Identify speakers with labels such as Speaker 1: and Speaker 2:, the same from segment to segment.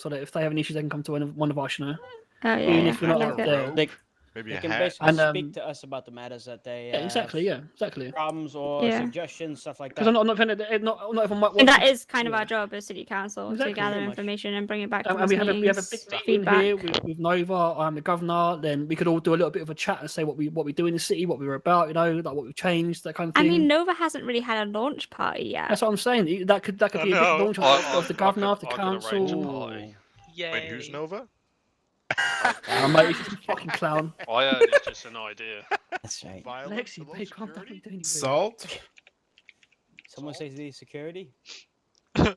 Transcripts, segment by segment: Speaker 1: so that if they have an issue, they can come to one of, one of us, you know.
Speaker 2: Oh yeah,
Speaker 1: Even
Speaker 2: yeah,
Speaker 1: if we're not
Speaker 2: I
Speaker 1: up
Speaker 2: like that.
Speaker 1: there.
Speaker 3: They,
Speaker 4: Maybe
Speaker 3: they
Speaker 4: a
Speaker 3: can
Speaker 4: hat.
Speaker 3: basically
Speaker 1: And, um,
Speaker 3: speak to us about the matters that they
Speaker 1: Yeah,
Speaker 3: have
Speaker 1: exactly. Yeah, exactly.
Speaker 3: problems or
Speaker 2: Yeah.
Speaker 3: suggestions, stuff like
Speaker 1: Because
Speaker 3: that.
Speaker 1: I'm not, I'm not saying that not, not everyone might.
Speaker 2: And
Speaker 1: watch
Speaker 2: that is kind of
Speaker 1: Yeah.
Speaker 2: our job as city council
Speaker 1: Exactly,
Speaker 2: to gather
Speaker 3: pretty much.
Speaker 2: information and bring it back to
Speaker 1: Um,
Speaker 2: the
Speaker 1: and we have, a, we have a big
Speaker 2: meetings,
Speaker 1: meeting
Speaker 2: feedback.
Speaker 1: here with, with Nova. I'm the governor. Then we could all do a little bit of a chat and say what we what we do in the city, what we were about, you know, like what we've changed, that kind of
Speaker 2: I
Speaker 1: thing.
Speaker 2: mean, Nova hasn't really had a launch party yet.
Speaker 1: that's what I'm saying. That could that could
Speaker 4: I
Speaker 1: be a
Speaker 4: know,
Speaker 1: big launch
Speaker 4: I-
Speaker 1: of,
Speaker 4: I-
Speaker 1: of the
Speaker 4: I could-
Speaker 1: governor, of the
Speaker 4: I could arrange a
Speaker 1: council.
Speaker 4: party.
Speaker 5: Yay.
Speaker 4: Wait, who's Nova?
Speaker 1: Oh, mate, he's just a fucking clown.
Speaker 6: I heard it's just an idea.
Speaker 3: That's right.
Speaker 4: Violence,
Speaker 1: Lexi,
Speaker 4: the law,
Speaker 1: babe, calm down.
Speaker 4: security?
Speaker 1: you doing
Speaker 7: Salt?
Speaker 3: Someone says the security.
Speaker 6: Oh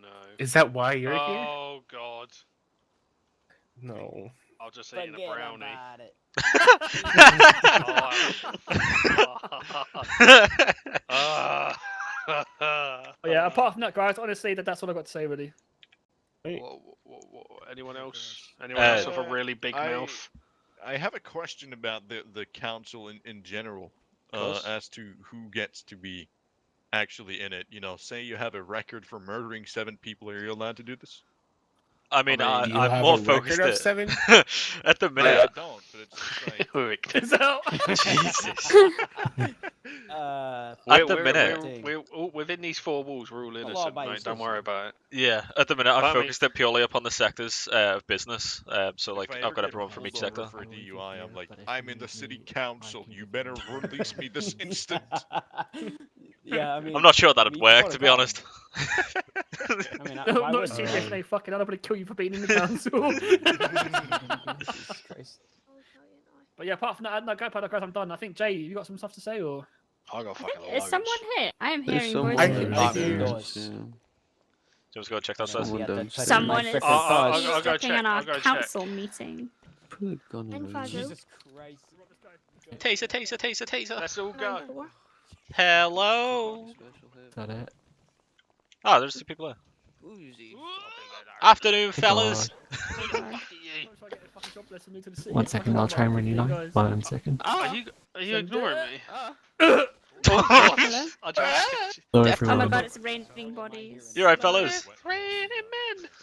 Speaker 6: no.
Speaker 7: Is that why you're
Speaker 5: Uh,
Speaker 7: here?
Speaker 6: Oh god.
Speaker 7: No.
Speaker 6: I'll just eat
Speaker 3: Forget
Speaker 6: a brownie.
Speaker 3: about it.
Speaker 4: Oh,
Speaker 6: Oh, Ah.
Speaker 1: But yeah, apart from that, guys, honestly, that, that's all I've got to say, really.
Speaker 6: Wha- wha- wha- wha- Anyone else? Anyone
Speaker 4: Uh,
Speaker 6: else with a really big
Speaker 4: I-
Speaker 6: mouth?
Speaker 4: I have a question about the, the council in, in general uh,
Speaker 6: course.
Speaker 4: as to who gets to be actually in it. You know, say you have a record for murdering seven people, are you allowed to do this?
Speaker 5: I mean, I
Speaker 7: I mean, do you
Speaker 5: I,
Speaker 7: have
Speaker 5: am
Speaker 7: a
Speaker 5: more
Speaker 7: record
Speaker 5: focused
Speaker 7: of
Speaker 5: at,
Speaker 7: seven?
Speaker 5: at the
Speaker 4: I, I
Speaker 5: minute.
Speaker 4: don't, but it's just like,
Speaker 5: Wait,
Speaker 1: So,
Speaker 5: Jesus.
Speaker 3: Uh,
Speaker 5: At the
Speaker 6: we're,
Speaker 5: minute.
Speaker 6: we're, we're, all- within these four walls, we're all innocent,
Speaker 3: law-abiding
Speaker 6: mate. Don't
Speaker 3: citizens.
Speaker 6: worry about it.
Speaker 5: Yeah, at the minute, I'm
Speaker 6: Well, I mean-
Speaker 5: focused it purely upon the sectors uh, of business. Um, so, like,
Speaker 4: if I
Speaker 5: I've
Speaker 4: ever
Speaker 5: got
Speaker 4: get
Speaker 5: everyone from each
Speaker 4: pulled over
Speaker 5: sector.
Speaker 4: For a
Speaker 8: I wouldn't
Speaker 4: DUI, I'm
Speaker 8: care,
Speaker 4: like,
Speaker 8: but if
Speaker 4: I'm
Speaker 8: you
Speaker 4: in the
Speaker 8: need
Speaker 4: city
Speaker 8: me, I
Speaker 4: council.
Speaker 8: can
Speaker 4: You
Speaker 8: defend
Speaker 4: better
Speaker 8: myself."
Speaker 4: release me this instant.
Speaker 3: yeah, I mean,
Speaker 5: I'm not sure that'd
Speaker 3: you
Speaker 5: work,
Speaker 3: wanna
Speaker 5: to be
Speaker 3: go.
Speaker 5: honest.
Speaker 3: I mean, I,
Speaker 1: no,
Speaker 3: I
Speaker 1: not
Speaker 3: would-
Speaker 1: serious,
Speaker 7: Alright.
Speaker 1: no, fucking hell, I'm going to kill you for being in the council.
Speaker 8: Jesus Christ.
Speaker 1: but yeah, apart from that, uh, no, go, Paddock, guys, I'm done. I think, Jay, you got some stuff to say, or?
Speaker 6: I got
Speaker 2: I
Speaker 6: fucking
Speaker 2: think, is
Speaker 6: loads.
Speaker 2: someone here? I am
Speaker 8: There's
Speaker 2: hearing
Speaker 8: someone
Speaker 7: I-
Speaker 2: voices.
Speaker 7: I-
Speaker 3: indoors.
Speaker 5: So let's go check
Speaker 3: Yeah,
Speaker 5: downstairs.
Speaker 8: Someone
Speaker 3: that
Speaker 8: downstairs.
Speaker 3: fucking
Speaker 2: Someone
Speaker 3: mic
Speaker 2: is uh,
Speaker 3: freaking
Speaker 8: Oh,
Speaker 6: I'll- I'll-
Speaker 3: buzzed.
Speaker 6: I'll go
Speaker 2: eavesdropping on
Speaker 6: check,
Speaker 2: our
Speaker 6: I'll go check.
Speaker 2: council meeting.
Speaker 8: Probably gone
Speaker 2: And
Speaker 8: already.
Speaker 2: Fago.
Speaker 3: Jesus Christ.
Speaker 5: Taser, taser, taser, taser.
Speaker 6: Let's all go.
Speaker 5: Hello.
Speaker 8: Is that it?
Speaker 5: Ah, there's two people there. Afternoon, fellas.
Speaker 2: God.
Speaker 8: One second, I'll try and reunite. One second.
Speaker 5: Ah!
Speaker 6: Are you, are you ignoring me?
Speaker 5: Oh,
Speaker 2: Hello?
Speaker 6: I
Speaker 5: Ah!
Speaker 6: just-
Speaker 8: Hello
Speaker 2: Oh my
Speaker 8: everyone.
Speaker 2: god, it's raining bodies.
Speaker 5: You alright, fellas?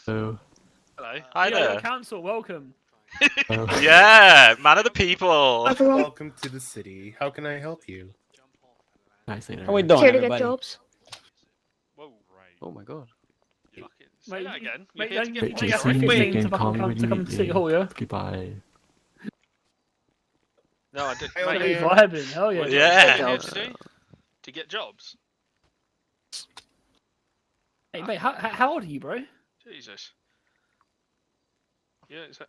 Speaker 8: So,
Speaker 6: Hello.
Speaker 5: Hi
Speaker 1: Yo, yo,
Speaker 5: there.
Speaker 1: council, welcome.
Speaker 8: uh,
Speaker 5: Yeah, man of the people.
Speaker 7: Welcome to the city. How can I help you?
Speaker 8: nice later.
Speaker 3: How we doing,
Speaker 9: Here to get
Speaker 3: everybody?
Speaker 9: jobs.
Speaker 6: Whoa,
Speaker 8: Oh my god.
Speaker 6: fucking
Speaker 1: Mate,
Speaker 6: say that
Speaker 1: you-
Speaker 6: again. You're
Speaker 1: Mate,
Speaker 6: here to
Speaker 1: don't
Speaker 6: get
Speaker 1: get- don't
Speaker 6: me
Speaker 8: Wait,
Speaker 1: get
Speaker 8: Jason,
Speaker 6: arrested.
Speaker 8: you
Speaker 1: fifteen
Speaker 8: can
Speaker 1: to
Speaker 8: call
Speaker 1: fucking
Speaker 8: me
Speaker 1: come
Speaker 8: when
Speaker 1: to
Speaker 8: you
Speaker 1: come
Speaker 8: need
Speaker 1: to City
Speaker 8: me.
Speaker 1: Hall, yeah?
Speaker 8: Goodbye.
Speaker 6: No, I didn't.
Speaker 7: Hey,
Speaker 6: Mate,
Speaker 7: okay.
Speaker 1: Bloody vibing, hell yeah.
Speaker 6: what
Speaker 5: Yeah.
Speaker 6: did you say you're here to do? To get jobs?
Speaker 1: Hey, mate, how, how- how old are you, bro?
Speaker 6: Jesus. Yeah, is that...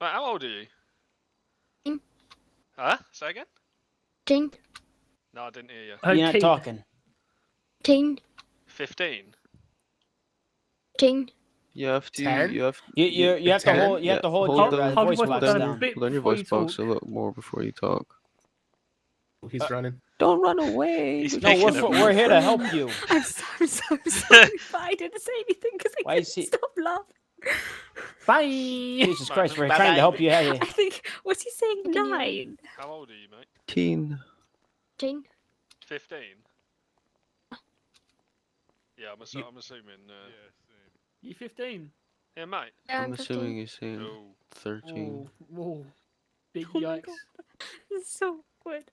Speaker 6: Mate, how old are you?
Speaker 9: Mm.
Speaker 6: Huh? Say again?
Speaker 9: Teen,
Speaker 6: No, I didn't hear you.
Speaker 3: You're not talking.
Speaker 9: teen,
Speaker 6: 15?
Speaker 9: teen.
Speaker 8: You have to.
Speaker 7: Ten?
Speaker 8: You have.
Speaker 3: You you you have to
Speaker 7: Pretend?
Speaker 3: hold you have to hold
Speaker 8: Hold
Speaker 3: your
Speaker 8: the-
Speaker 3: uh,
Speaker 8: hold
Speaker 3: voice
Speaker 1: the
Speaker 3: box
Speaker 1: button.
Speaker 3: down.
Speaker 1: Bit
Speaker 8: Learn your
Speaker 1: before
Speaker 8: voice
Speaker 1: you
Speaker 8: box
Speaker 1: talk.
Speaker 8: a little more before you talk.
Speaker 7: Oh, He's running.
Speaker 8: Don't run away.
Speaker 5: He's
Speaker 8: you
Speaker 3: No, we're,
Speaker 5: Making
Speaker 3: for,
Speaker 5: them-
Speaker 3: we're here to help you.
Speaker 2: I'm so, I'm so sorry, but I didn't say anything because I
Speaker 3: Why
Speaker 2: couldn't
Speaker 3: is he-
Speaker 2: stop laughing.
Speaker 1: Bye!
Speaker 3: Jesus Christ, we're
Speaker 6: Bye-bye.
Speaker 3: trying to help you out here.
Speaker 2: I think, was he saying
Speaker 9: Can you-
Speaker 2: nine?
Speaker 6: How old are you, mate?
Speaker 8: Keen.
Speaker 9: Teen.
Speaker 6: 15? Yeah, I'm, assu- I'm assuming. Uh...
Speaker 1: You 15?
Speaker 6: Yeah. mate.
Speaker 9: Yeah,
Speaker 8: I'm assuming you're saying
Speaker 6: No.
Speaker 8: 13.
Speaker 1: Oh, whoa. Big
Speaker 2: Oh my
Speaker 1: yikes.
Speaker 2: God. This is so awkward.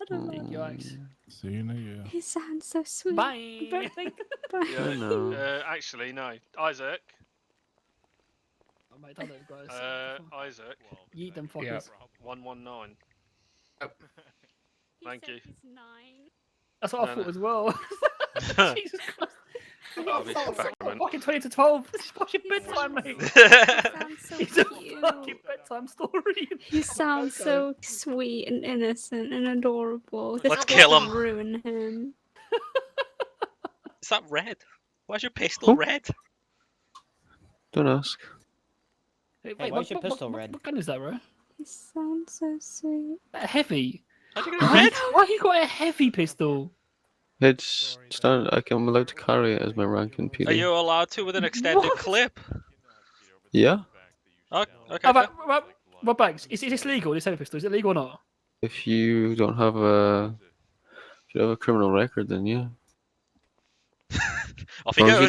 Speaker 2: I don't
Speaker 1: Big
Speaker 2: know.
Speaker 8: Mm.
Speaker 1: yikes.
Speaker 10: See you in a year.
Speaker 2: He sounds so sweet.
Speaker 1: Bye!
Speaker 2: But like, but
Speaker 6: Yeah,
Speaker 8: I know.
Speaker 6: Uh, actually, no. Isaac.
Speaker 1: Oh, mate, don't let them go,
Speaker 6: Uh,
Speaker 1: it's-
Speaker 6: Isaac.
Speaker 1: Yeet them
Speaker 7: Yeah.
Speaker 1: fuckers.
Speaker 6: 119.
Speaker 2: he
Speaker 6: Thank
Speaker 2: said
Speaker 6: you.
Speaker 2: he's nine.
Speaker 1: That's what I
Speaker 6: No,
Speaker 1: thought
Speaker 6: no.
Speaker 1: as well. Jesus Christ.
Speaker 6: Oh, this
Speaker 1: Fuck,
Speaker 6: fucker,
Speaker 1: Fucking 20 to 12. This is fucking
Speaker 2: He's
Speaker 1: bedtime,
Speaker 2: so-
Speaker 1: mate.
Speaker 2: Sounds so
Speaker 1: It's a fucking
Speaker 2: cute.
Speaker 1: bedtime story.
Speaker 2: He sounds
Speaker 1: Okay.
Speaker 2: so sweet and innocent and adorable. This
Speaker 5: Let's kill
Speaker 2: doesn't
Speaker 5: him.
Speaker 2: Ruin him.
Speaker 5: Is that red? Why's your pistol
Speaker 8: Oh.
Speaker 5: red?
Speaker 8: Don't ask.
Speaker 1: Hey,
Speaker 3: why is your pistol
Speaker 1: what,
Speaker 3: red?
Speaker 1: What gun is that, bro?
Speaker 2: He sounds so sweet.
Speaker 1: That heavy.
Speaker 5: How'd you get it
Speaker 1: Why,
Speaker 5: red?
Speaker 1: why you got a heavy pistol?
Speaker 8: It's standard. I can, I'm allowed to carry it as my rank in PD.
Speaker 5: Are you allowed to with an extended
Speaker 1: What?
Speaker 5: clip?
Speaker 4: uh,
Speaker 8: Yeah.
Speaker 5: Oh, okay.
Speaker 1: How about, Rob, Rob Banks, is, is this legal, this heavy pistol? Is it legal or not?
Speaker 8: If you don't have a, if you have a criminal record, then yeah.
Speaker 5: Off you
Speaker 8: Or if
Speaker 5: go.
Speaker 8: you